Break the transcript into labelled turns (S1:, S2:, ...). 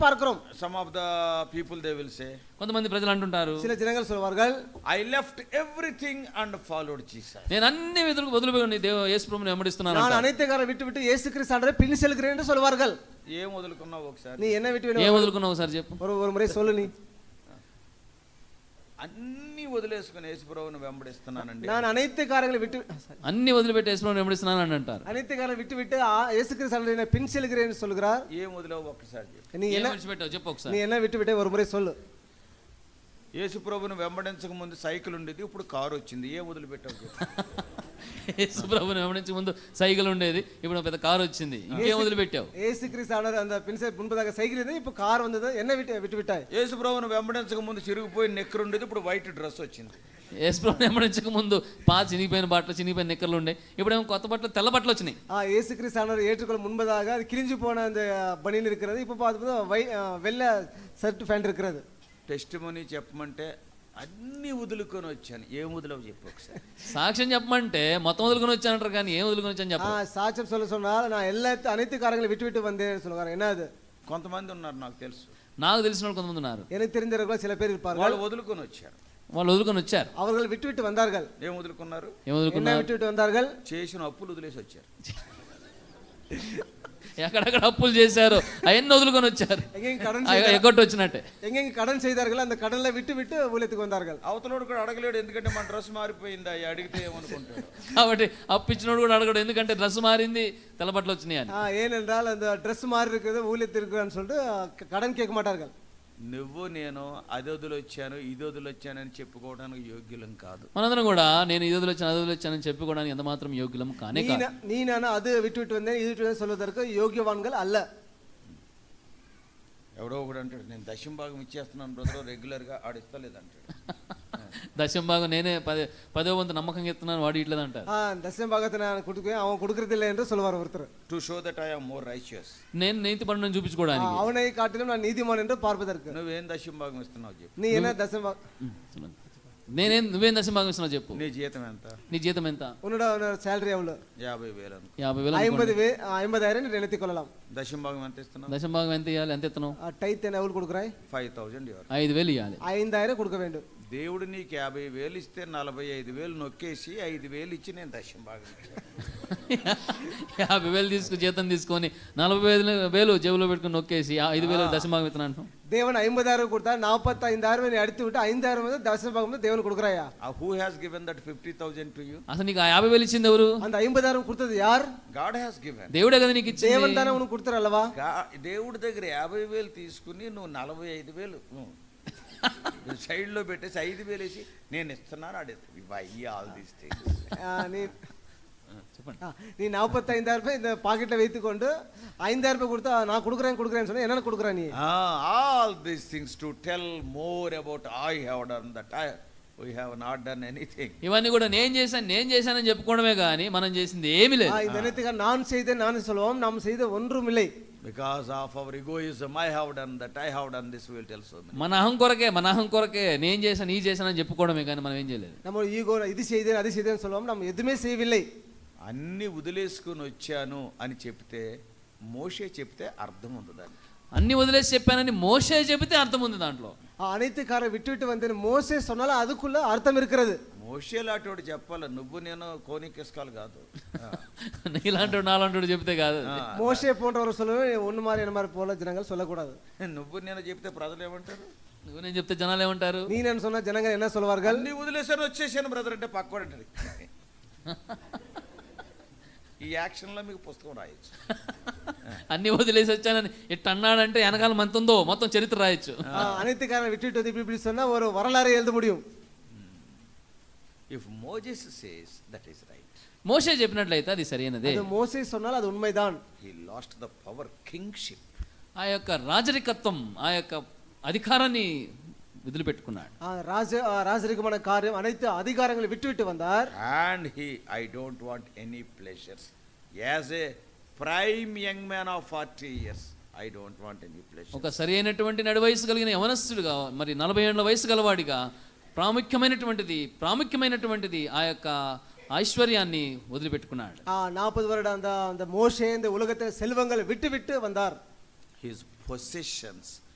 S1: பார்க்கிறோம்
S2: Some of the people they will say,
S3: కొంతమంది ప్రజలు అంటుంటారు
S1: சில ஜனங்கள் சொல்வார்கள்
S2: I left everything and followed Jesus.
S3: నేను అన్ని విధులకు వదిలిపోయి దేవ యేసు ప్రభువుని వెంబడిస్తున్నాను
S1: நான்
S3: అంటారు.
S1: அனைத்து காரை விட்டு விட்டு இயேசு கிறிஸ்து ஆண்டவரை பின் செல்கிறேன் என்று சொல்வார்கள்
S2: ఏం వదులుకున్నావు ఒకసారి
S1: நீ என்ன விட்டு வேணும்?
S3: ఏం వదులుకున్నావు సార్ చెప్పు
S1: ஒரு ஒரு முறை சொல்லு நீ
S2: అన్ని వదిలేసుకుని యేసుప్రభుని వెంబడిస్తున్నానండి
S1: நான் அனைத்து காரங்களை விட்டு sorry.
S3: అన్ని వదిలిపెట్టి యేసు ప్రభువుని వెంబడిస్తున్నాను అని అంటారు
S1: அனைத்து காரை விட்டு விட்டு ஆ, இயேசு கிறிஸ்து ஆண்டவரை நான் பின் செல்கிறேன் என்று சொல்கிறார்
S2: ఏం వదిలేవు ఒక్కసారి చెప్పు
S1: நீ
S3: ఏం
S1: என்ன
S3: విడిచిపెట్టావు చెప్పు ఒకసారి
S1: நீ என்ன விட்டு விட்டே ஒரு முறை சொல்லு
S2: యేసుప్రభుని వెంబడించక ముందు సైకిల్ ఉండేది ఇప్పుడు కారు వచ్చింది ఏం వదిలిపెట్టావు చెప్పు
S3: యేసు ప్రభువుని వెంబడించే ముందు సైకిల్ ఉండేది ఇప్పుడు ఒక పెద్ద కారు వచ్చింది ఇంకేం వదిలిపెట్టావు
S1: இயேசு கிறிஸ்து ஆண்டவர் அந்த பின் செல் முன்பதாக சைக்கிள் இருந்தது இப்போ கார் வந்தது என்ன விட்டு விட்டு விட்டாய்
S2: యేసుప్రభుని వెంబడించక ముందు చిరిగిపోయి నెక్కరు ఉండేది ఇప్పుడు వైట్ డ్రెస్ వచ్చింది
S3: యేసు ప్రభువుని వెంబడించక ముందు పా చినిగిపోయిన బట్టలు చినిగిపోయిన నిక్కర్లు ఉండే ఇప్పుడేమో కొత్త బట్టలు తెల్ల బట్టలు వచ్చినాయి
S1: ஆ இயேசு கிறிஸ்து ஆண்டவர் ஏற்றுக்கொள்ள முன்பதாக அது கிழிஞ்சு போன அந்த பனியன் இருக்கிறது இப்போ பார்த்து வை ஆ, வெள்ளை ஷர்ட் ஃபேண்ட் இருக்கிறது
S2: టెస్ట్ మనీ చెప్పమంటే అన్ని వదులుకొని వచ్చాను ఏం వదిలేవు చెప్పు ఒకసారి
S3: సాక్ష్యం చెప్పమంటే మొత్తం వదులుకొని వచ్చానంటారు కానీ ఏం వదులుకొని వచ్చాను
S1: ஆ
S3: చెప్ప
S1: சாட்சியம் சொல்ல சொன்னால் நான் எல்லா அனைத்து காரங்களையும் விட்டு விட்டு வந்தேன்னு சொல்லுவாங்க என்ன அது
S2: కొంతమంది ఉన్నారు నాకు తెలుసు
S3: నాకు తెలిసిన వాళ్ళు కొంతమంది ఉన్నారు
S1: எனக்கு தெரிஞ்சவர்கள் சில பேர் இருப்பார்கள்
S2: వాళ్ళు వదులుకొని వచ్చారు
S3: వాళ్ళు వదులుకొని వచ్చారు
S1: அவர்கள் விட்டு விட்டு வந்தார்கள்
S2: ఏం వదులుకున్నారు
S3: ఏం వదులుకున్నారు
S1: என்ன விட்டு விட்டு வந்தார்கள்
S2: చేసిన అప్పులు వదిలేసి వచ్చారు
S3: ఎక్కడెక్కడ అప్పులు చేశారు అవన్నీ వదులుకొని వచ్చారు
S1: எங்கெங்க கடன்
S3: అయ్యో, ఎగ్గొట్టు వచ్చినట్టే
S1: எங்கெங்க கடன் செய்தார்கள் அந்த கடன்ல விட்டு விட்டு ஊழியத்துக்கு வந்தார்கள்
S2: అవతలోడు కూడా అడగలేడు ఎందుకంటే మన డ్రెస్ మారిపోయింది అయ్యి అడిగితే ఏమనుకుంటాడు
S3: కాబట్టి అప్పిచ్చినోడు కూడా అడగడు ఎందుకంటే డ్రెస్ మారింది తెల్లబట్టలు వచ్చినాయి అని
S1: ஆ, ஏனென்றால் அந்த Dress மாறி இருக்கிறது ஊழியத்திற்குன்னு சொல்லிட்டு ஆ, க- கடன் கேட்க மாட்டார்கள்
S2: నువ్వు నేను అది వదిలొచ్చాను ఇది వదిలొచ్చానని చెప్పుకోవడానికి యోగ్యులం కాదు
S3: మనందరం కూడా నేను ఇది వదిలొచ్చాను అది వదిలొచ్చానని చెప్పుకోవడానికి ఎంత మాత్రం యోగ్యులం కానే
S1: நீ
S3: కాదు
S1: நா- நீ நான் அது விட்டு விட்டு வந்தேன் இது விட்டு வந்தேன் சொல்வதற்கு யோகியவான்கள் அல்ல
S2: ఎవరో ఒకడు అంటాడు నేను దశం భాగం ఇచ్చేస్తున్నాను బ్రదర్ రెగ్యులర్గా ఆడిస్తలేదు అంటాడు
S3: దశం భాగం నేనే పదే పదో వంతు నమ్మకంగా ఇస్తున్నాను వాడు ఇట్లేదు అంటారు
S1: ஆ, தசம பாகத்தை நான் கொடுக்குவேன் அவன் கொடுக்கறது இல்லை என்று சொல்லுவார் ஒருத்தர்
S2: to show that I'm more righteous
S3: నేను నేతి పనులను
S1: ஆ,
S3: చూపించుకోవడానికి
S1: அவனை காட்டிலும் நான் நீதிமான் என்று பார்ப்பதற்கு
S2: నువ్వేం దశం భాగం ఇస్తున్నావు చెప్పు
S1: நீ என்ன தசம பாக-
S3: నేనేం నువ్వేం దశం భాగం ఇస్తున్నావు చెప్పు
S2: నీ జీతం ఎంత
S3: నీ జీతం ఎంత
S1: உன்னோட சேலரி எவ்வளோ
S2: యాభై వేలు అనుకో
S3: యాభై వేలు
S1: ஐம்பது வே- ஆ, ஐம்பதாயிரம் நீ நினைத்துக் கொள்ளலாம்
S2: దశం భాగం ఎంత ఇస్తున్నావు
S3: దశం భాగం ఎంత ఇవ్వాలి ఎంత ఇస్తున్నావు
S1: ஆ, டைத் என்ன எவ்வளோ கொடுக்குறாய்
S2: ఫైవ్ థౌజండ్ ఇవ్వాలి
S3: ఐదు వేలు ఇవ్వాలి
S1: ஐந்தாயிரம் கொடுக்க வேண்டும்
S2: దేవుడు నీకు యాభై వేలు ఇస్తే నలభై ఐదు వేలు నొక్కేసి ఐదు వేలు ఇచ్చి నేను దశం భాగం ఇచ్చాను
S3: యాభై వేలు తీసుకు జీతం తీసుకొని నలభై వేలు వేలు జేబులో పెట్టుకుని నొక్కేసి ఆ ఐదు వేలు దశం భాగం ఇస్తున్నాను అంటున్నావు.
S1: தேவன் ஐம்பதாயிரம் கொடுத்தா நாற்பத்தைந்தாயிரம் நீ அடித்து விட்டு ஐந்தாயிரம் வந்து தசம பாகம் வந்து தேவன் கொடுக்குறாயா
S2: ఆ who has given that fifty thousand to you
S3: అసలు నీకు ఆ యాభై వేలు ఇచ్చింది ఎవరు
S1: அந்த ஐம்பதாயிரம் கொடுத்தது யார்
S2: గాడ్ హ్యాస్ గివెన్
S3: దేవుడే కదా నీకు ఇచ్చింది
S1: தேவன் தானே உனக்கு கொடுத்துற அல்லவா
S2: దేవుడి దగ్గర యాభై వేలు తీసుకుని నువ్వు నలభై ఐదు వేలు సైడ్లో పెట్టేసి ఐదు వేలు వేసి నేను ఇస్తున్నాను ఆడే ఇవ్వ ఆల్ దీస్ థింగ్స్
S1: ஆ, நீ ஆ, நீ நாற்பத்தைந்தாயிரம் ரூபாய் இந்த பாக்கெட்ல வைத்துக்கொண்டு ஐந்தாயிரம் ரூபாய் கொடுத்தா நான் கொடுக்குறேன் கொடுக்குறேன்னு சொன்னா என்னென்ன கொடுக்குற நீ
S2: all these things to tell more about I have done that I we have not done anything
S3: ఇవన్నీ కూడా నేను చేశాను నేను చేశానని చెప్పుకోవడమే కానీ మనం చేసింది ఏమీ
S1: ஆ,
S3: లేదు
S1: இந்த நேரத்துக்கு நான் செய்தேன் நான் சொல்லுவோம் நாம் செய்த ஒன்றும் இல்லை
S2: because of our egoism I have done that I have done this will tell so many
S3: మన అహం కొరకే మన అహం కొరకే నేను చేశాను ఈ చేశానని చెప్పుకోవడమే కానీ మనం ఏం చేయలేదు
S1: நம்ம ஈகோ இது செய்தேன் அது செய்தேன்னு சொல்லுவோம் நாம் எதுவுமே செய்யவில்லை
S2: అన్నీ వదిలేసుకుని వచ్చాను అని చెప్తే మోషే చెప్తే అర్థం ఉంది దానికి
S3: అన్ని వదిలేసి చెప్పానని మోసే చెబితే అర్థం ఉంది దాంట్లో
S1: ஆ, அனைத்து காரை விட்டு விட்டு வந்தேன் மோசே சொன்னாலும் அதுக்குள்ள அர்த்தம் இருக்கிறது
S2: మోషే లాంటివాడు చెప్పాలి నువ్వు నేను కోనికేసుకోవాలి కాదు
S3: నీలాంటి నాలాంటి చెబితే కాదు
S2: ఆ,
S1: மோசே போன்றவர் சொல்லணும் ஒன்று மாதிரி என்ன மாதிரி போல ஜனங்கள் சொல்லக்கூடாது
S2: నువ్వు నేను చెప్తే ప్రజలు ఏమంటారు
S3: నువ్వు నేను చెప్తే జనాలు ఏమంటారు
S1: நீ நான் சொன்ன ஜனங்கள் என்ன சொல்வார்கள்
S2: అన్ని వదిలేసాను వచ్చేసాను బ్రదర్ అంటే పక్కవాడంటారు ఈ యాక్షన్లో మీకు పుస్తకం రాయొచ్చు
S3: అన్ని వదిలేసి వచ్చానని ఇట్ అన్నాడంటే వెనకాల మంత ఉందో మొత్తం చరిత్ర రాయొచ్చు
S1: ஆ, அனைத்து காரை விட்டுட்டு வந்து இப்படி இப்படி சொன்னா ஒரு வரலாறு எழுத முடியும்
S2: if Moses says that is right
S3: మోసే చెప్పినట్లయితే అది సరైనదే
S1: அது మోసే சொன்னால் அது உண்மைதான்
S2: he lost the power kingship
S3: ఆ యొక్క రాజరికత్వం ఆ యొక్క అధికారాన్ని వదిలిపెట్టుకున్నాడు
S1: ஆ, ராஜ ஆ, ராஜரிகமான காரியம் అனைத்து அதிகாரங்களை విట్టుவிட்டு வந்தார்
S2: and he I don't want any pleasures as a prime young man of forty years I don't want any pleasure
S3: ఒక సరి అయినటువంటి నడి వయసు కలిగిన యవనస్తుడుగా మరి నలభై ఏళ్ళ వయసు గలవాడిగా ప్రాముఖ్యమైనటువంటిది ప్రాముఖ్యమైనటువంటిది ఆ యొక్క ఐశ్వర్యాన్ని వదిలిపెట్టుకున్నాడు
S1: ஆ, நாற்பது வருட அந்த அந்த மோசே இந்த உலகத்தில் செல்வங்களை விட்டுவிட்டு வந்தார்
S2: his possessions